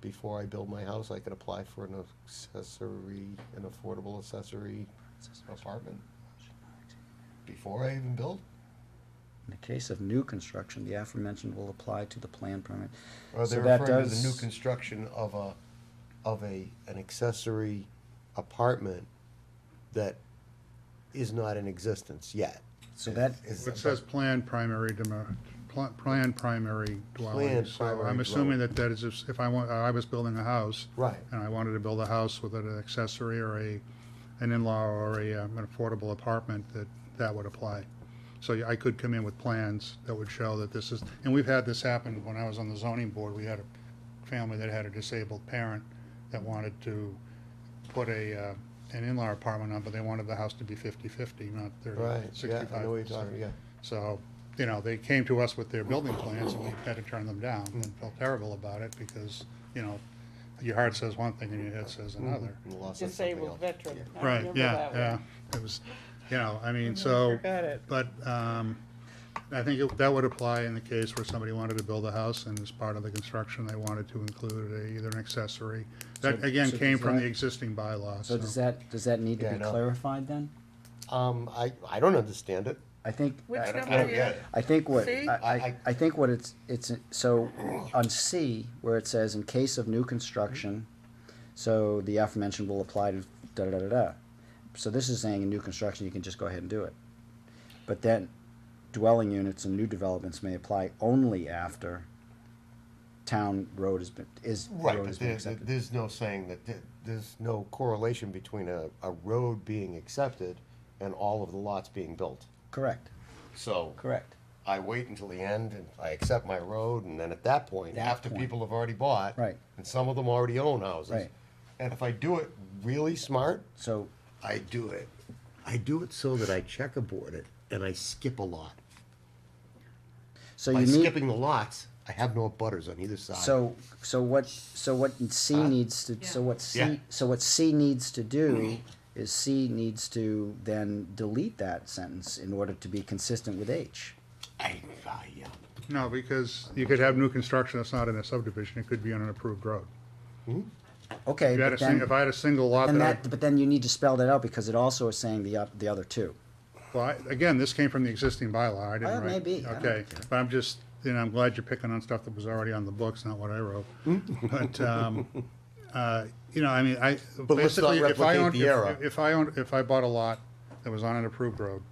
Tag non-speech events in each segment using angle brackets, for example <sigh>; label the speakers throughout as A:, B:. A: before I build my house, I could apply for an accessory, an affordable accessory apartment. Before I even build?
B: In the case of new construction, the aforementioned will apply to the plan permit.
A: Or
B: So
A: they're
B: that
A: referring to the
B: does-
A: new construction of a, of a, an accessory apartment that is not in existence yet.
B: So that,
A: Is-
C: It says plan primary, demo- pla- plan primary dwelling,
A: Planned
C: so
A: primary
C: I'm
A: dwelling.
C: assuming that that is, if if I want, I was building a house.
A: Right.
C: And I wanted to build a house with an accessory or a, an in-law or a, um, an affordable apartment, that, that would apply. So yeah, I could come in with plans that would show that this is, and we've had this happen when I was on the zoning board, we had a family that had a disabled parent that wanted to put a, uh, an in-law apartment on, but they wanted the house to be fifty-fifty, not thirty,
A: Right, yeah,
C: sixty-five.
A: I know what you're talking, yeah.
C: So, you know, they came to us with their building plans and we had to turn them down and felt terrible about it because, you know, your heart says one thing and your head says
B: Mm-hmm.
C: another.
A: And Mm, lost on something
D: disabled
A: else.
D: veteran. I
C: Right,
D: remember
C: yeah,
D: that one.
C: yeah. It was, you know, I
B: Mm-hmm.
C: mean, so,
D: Forgot it.
C: but, um, I think it- that would apply in the case where somebody wanted to build a house and as part of the construction, they wanted to include a- either an accessory. That,
B: So-
C: again,
B: so
C: came
B: does
C: from the
B: that-
C: existing bylaw,
B: so
C: so.
B: does that, does that need to
A: Yeah, I
B: be
A: know.
B: clarified then?
A: Um, I, I don't understand it.
B: I think.
D: Which
B: I-
D: number
A: I don't
D: is
A: get
D: it?
A: it.
B: I think what, I,
D: See?
B: I, I think what it's, it's, so on C, where it says in case of new construction, so the aforementioned will apply to da da da da da. So this is saying in new construction, you can just go ahead and do it. But then dwelling units and new developments may apply only after town road has been, is,
A: Right,
B: road
A: but
B: has been
A: there's,
B: accepted.
A: there's no saying that, th- there's no correlation between a, a road being accepted and all of the lots being built.
B: Correct,
A: So
B: correct.
A: I wait until the end and I accept my road and then at that point,
B: That
A: after
B: point.
A: people have already bought.
B: Right.
A: And some of them already own houses.
B: Right.
A: And if I do it really smart,
B: So,
A: I do it. I do it so that I checkerboard it and I skip a lot.
B: so you
A: By
B: need.
A: skipping the lots, I have no butters on either side.
B: So, so what, so what C needs to, so what
A: Yeah.
B: C, so what C needs to
A: <clears throat>
B: do is C needs to then delete that sentence in order to be consistent with H.
A: I, I, yeah.
C: No, because you could have new construction that's not in a subdivision, it could be on an approved road.
B: Okay,
C: If you had a,
B: but
C: sing-
B: then,
C: if I had a single lot
B: and
C: that I.
B: that, but then you need to spell that out because it also is saying the, oth- the other two.
C: Well, I- again, this came from the existing bylaw, I
B: Well,
C: didn't
B: Oh, it
C: write.
B: may be. I don't
C: Okay,
B: care.
C: but I'm just, you know, I'm glad you're picking on stuff that was already on the books, not what
B: <laughs>
C: I wrote. But, um, uh, you know, I mean, I,
A: let's not
C: basically, if I
A: replicate
C: owned,
A: the error.
C: if- if I owned, if I bought a lot that was on an approved road,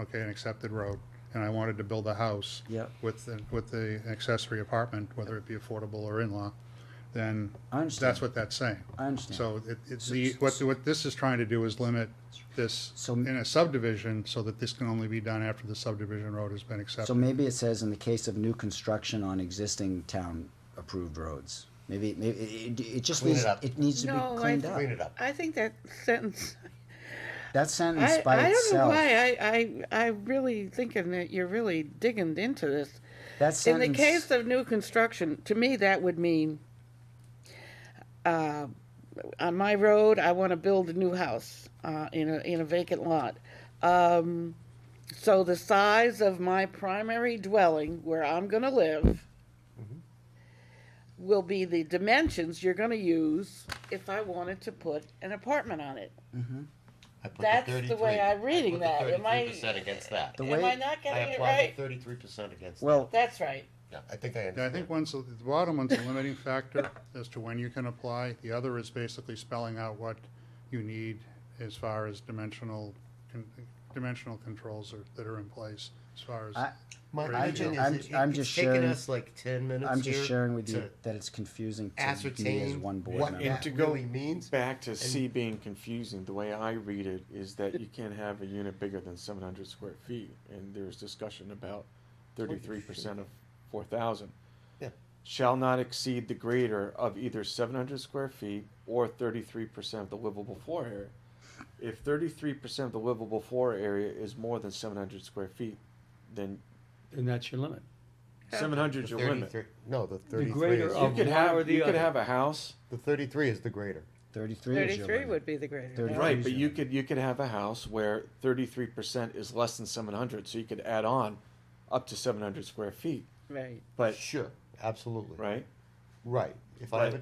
C: okay, an accepted road, and I wanted to build a house.
B: Yeah.
C: With, the- with the accessory apartment, whether it be affordable or in-law, then
B: I understand.
C: that's what that's saying.
B: I understand.
C: So it, it's the, what, what this is trying to do is limit this
B: So-
C: in a subdivision so that this can only be done after the subdivision road has been
B: So
C: accepted.
B: maybe it says in the case of new construction on existing town approved roads. Maybe, maybe, it, it- it just
A: Clean
B: needs,
A: it up.
B: it needs to
D: No,
B: be
D: I
B: cleaned
D: think-
B: up.
A: Clean it up.
D: I think that sentence,
B: That sentence
D: I,
B: by
D: I don't know
B: itself,
D: why, I, I, I really thinking that you're really digging into this.
B: that
D: In
B: sentence.
D: the case of new construction, to me, that would mean, uh, on my road, I want to build a new house, uh, in a, in a vacant lot. Um, so the size of my primary dwelling where I'm going to live
B: Mm-hmm.
D: will be the dimensions you're going to use if I wanted to put an apartment on it.
A: I put
D: That's the way
A: 33
D: I'm reading
A: I
D: that.
A: put
D: Am I?
A: 33% against that.
B: The
D: Am
B: way-
D: I not
A: I
D: getting it
A: applied
D: right?
A: the thirty-three percent against.
B: Well,
D: That's right.
A: that. Yeah, I think I
C: Yeah, I
A: understand.
C: think one's, the bottom one's a limiting factor <laughs> as to when you can apply. The other is basically spelling out what you need as far as dimensional, con- dimensional controls are, that are in place as far as.
B: I-
A: My,
C: Right.
A: my
C: I'm-
A: thing is,
B: I'm-
A: it- it-
B: I'm
A: it's
B: just
A: taken
B: sharing-
A: us like ten minutes
B: I'm just
A: here
B: sharing with you
A: to
B: that it's confusing to me as
A: ascertain
B: one board
A: what
B: member.
A: that
E: to go-
A: really means.
E: Back to C being confusing, the way I read it is that you can't have a unit bigger than seven hundred square feet, and there's discussion about thirty-three percent of four thousand.
A: Yeah.
E: Shall not exceed the greater of either seven hundred square feet or thirty-three percent of the livable floor area. If thirty-three percent of the livable floor area is more than seven hundred square feet, then
F: And that's your limit.
E: seven hundred is your limit.
A: 33 No, the thirty-three
F: greater
A: is,
F: of-
E: You could
F: one or
E: have,
F: the
E: you could
F: other.
E: have a house
A: the thirty-three is the greater.
B: Thirty-three is your
D: Thirty-three
B: limit.
D: would be the greater.
B: Thirty-
D: number.
E: Right, but
B: Easier.
E: you could, you could have a house where thirty-three percent is less than seven hundred, so you could add on up to seven hundred square feet,
D: Right.
E: but,
A: Sure, absolutely.
E: right?
A: Right. If I have a
E: Right.